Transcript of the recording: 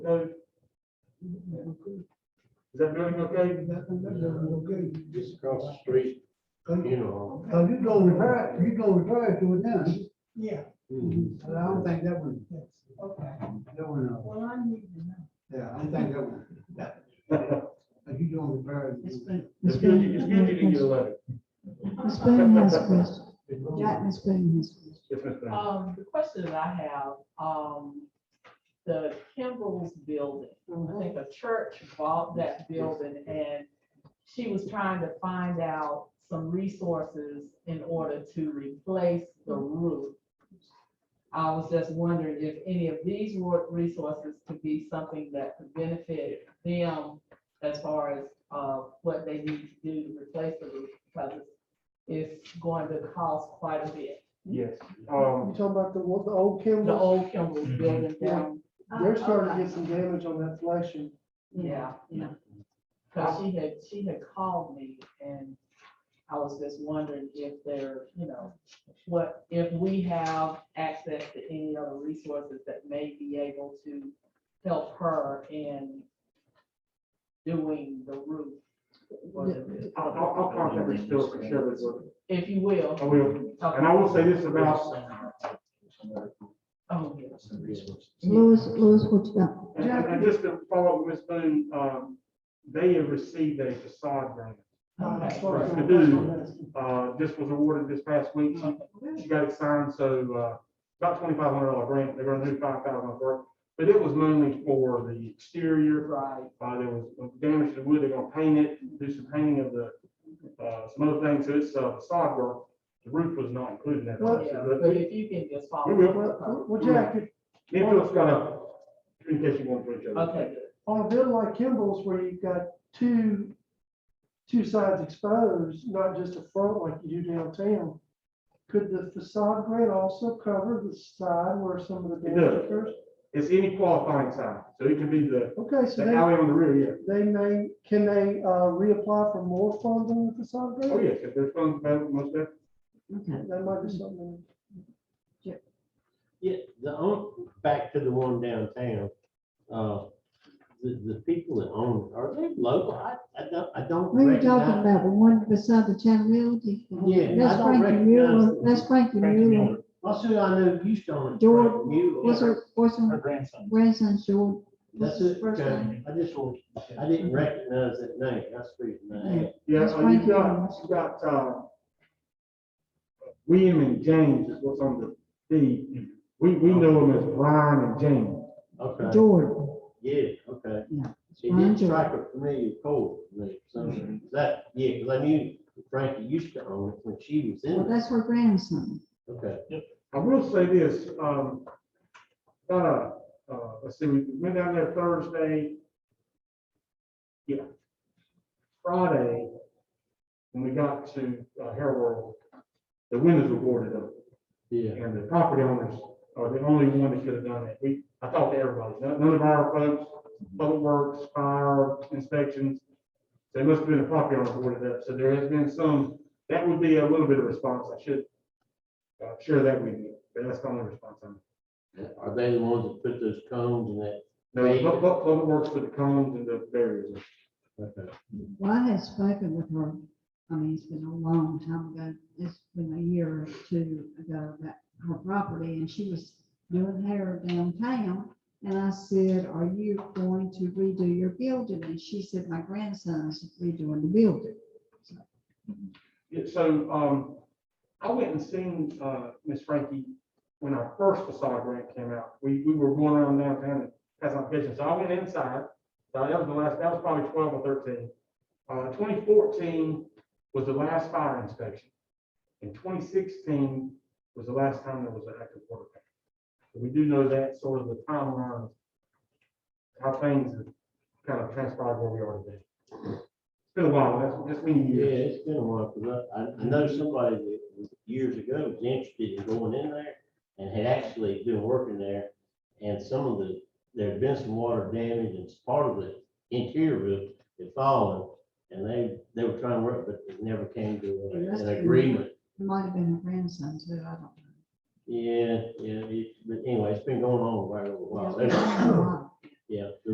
Noted. Is that building okay? Okay, Just across the street, you know. so you go refer, you go refer to it now. Yeah, But I don't think that one, okay, that one, uh, well, I need to know. yeah, I don't think that one. that- If you don't refer. It's been, It's it's good, been, you- it's it's good you didn't get a been, letter. Ms. Boone has a question. Jack, Ms. Boone has a question. Yes, Ms. Brown. Um, the question that I have, um, the Kimball's building, I think a church bought that building and she was trying to find out some resources in order to replace the roof. I was just wondering if any of these wor- resources could be something that could benefit them as far as, uh, what they need to do to replace the roof, because it's going to cost quite a bit. Yes, um, talking about the, one- the old The Kimball, old Kimball's Mm-hmm. building down, they're starting to get some damage on that flashing. yeah. Yeah. Cause she had, she had called me and I was just wondering if there, you know, what, if we have access to any other resources that may be able to help her in doing the roof. or the- I'll, I'll, I'll contact the store and share this with If you will. I will. And I will say this about, Oh, yes. Louis, Louis, what you got? and- and and just to follow up with Ms. Boone, um, they have received a facade grant. Okay. I do. Uh, this was awarded this past week. She She got it signed, so, uh, about twenty-five hundred dollar grant, they're gonna do five thousand of work. But it was mainly for the exterior, Right, uh, there was damage to the wood, they're gonna paint it, do some painting of the, uh, some other things, so it's, uh, facade work. The roof was not included in that. yeah, But but if you can just follow. We will. Well, well, Jack, if- If it's gonna, in case you want to. reach out. Okay, on a bid like Kimball's where you've got two, two sides exposed, not just a front like you do downtown, could the facade grade also cover the side where some of the It damage does. occurs? It's any qualifying sign, so it can be the, Okay, so the they, alley on the rear, they may, can they, uh, reapply for more funds on the facade yeah. Oh, grade? yes, if there's funds available, most definitely. Okay. That might be something. Yeah, the own, back to the one downtown, uh, the, the people that own, it, are they local? I, I don't, I don't We were talking recognize. about the one beside the Chantilly. Yeah, I That's don't Frankie recognize Mueller, the- that's Frankie Mueller. Well, who I know used to own. it, George, Frank Mueller. What's her, what's her grandson. grandson, George? What's That's his it, first name? okay. I just, want- I didn't recognize that name, that's the reason I asked. Yeah, That's uh, right you've here. got, you've got, uh, William and James is what's on the deed. We, we know them as Brian and James. Okay, Jordan. yeah, okay. Yeah, It Brian did strike a familiar chord to me, something, Mm-hmm. that, yeah, because I knew Frankie used to own it when she was in Well, it, that's her grandson. okay. I will say this, um, about, uh, uh, let's see, we went down there Thursday. Yeah. Friday, when we got to uh, Hair World, the windows were boarded up. Yeah. And the property owners are the only one that could have done that. We, I talked to everybody, none none of our folks, public works, fire inspections. They must have been a property owner boarded up, so there has been some, that would be a little bit of response, I should uh, share that with you, but that's the only response I'm. Are they the ones that put those cones and that? No, but, but, public works for the cones and the barriers. Okay. Well, I had spoken with her, I mean, it's been a long time ago, it's been a year or two ago, about her property, and she was doing hair downtown. And I said, are you going to redo your building? And she said, my grandson's redoing the building. Yeah, so, um, I went and seen, uh, Miss Frankie when our first facade grant came out. We, we were going around downtown and had some pictures. So I went inside. Uh, that was the last, that was probably twelve or thirteen. Uh, twenty fourteen was the last fire inspection. And twenty sixteen was the last time there was an active water main. So We do know that sort of the timeline, of how things have kind of transpired where we are today. It's been a while, that's, that's many Yeah, years. it's been a while, because I, I know somebody that was years ago was interested in going in there and had actually been working there. And some of the, there had been some water damage and part of the interior roof had fallen. And they, they were trying to work, but it never came to Yeah, that's an true. agreement. It might have been her grandson too, I don't know. Yeah, yeah, it- but anyway, it's been going on for a while. Yeah, it's been a while. yeah, the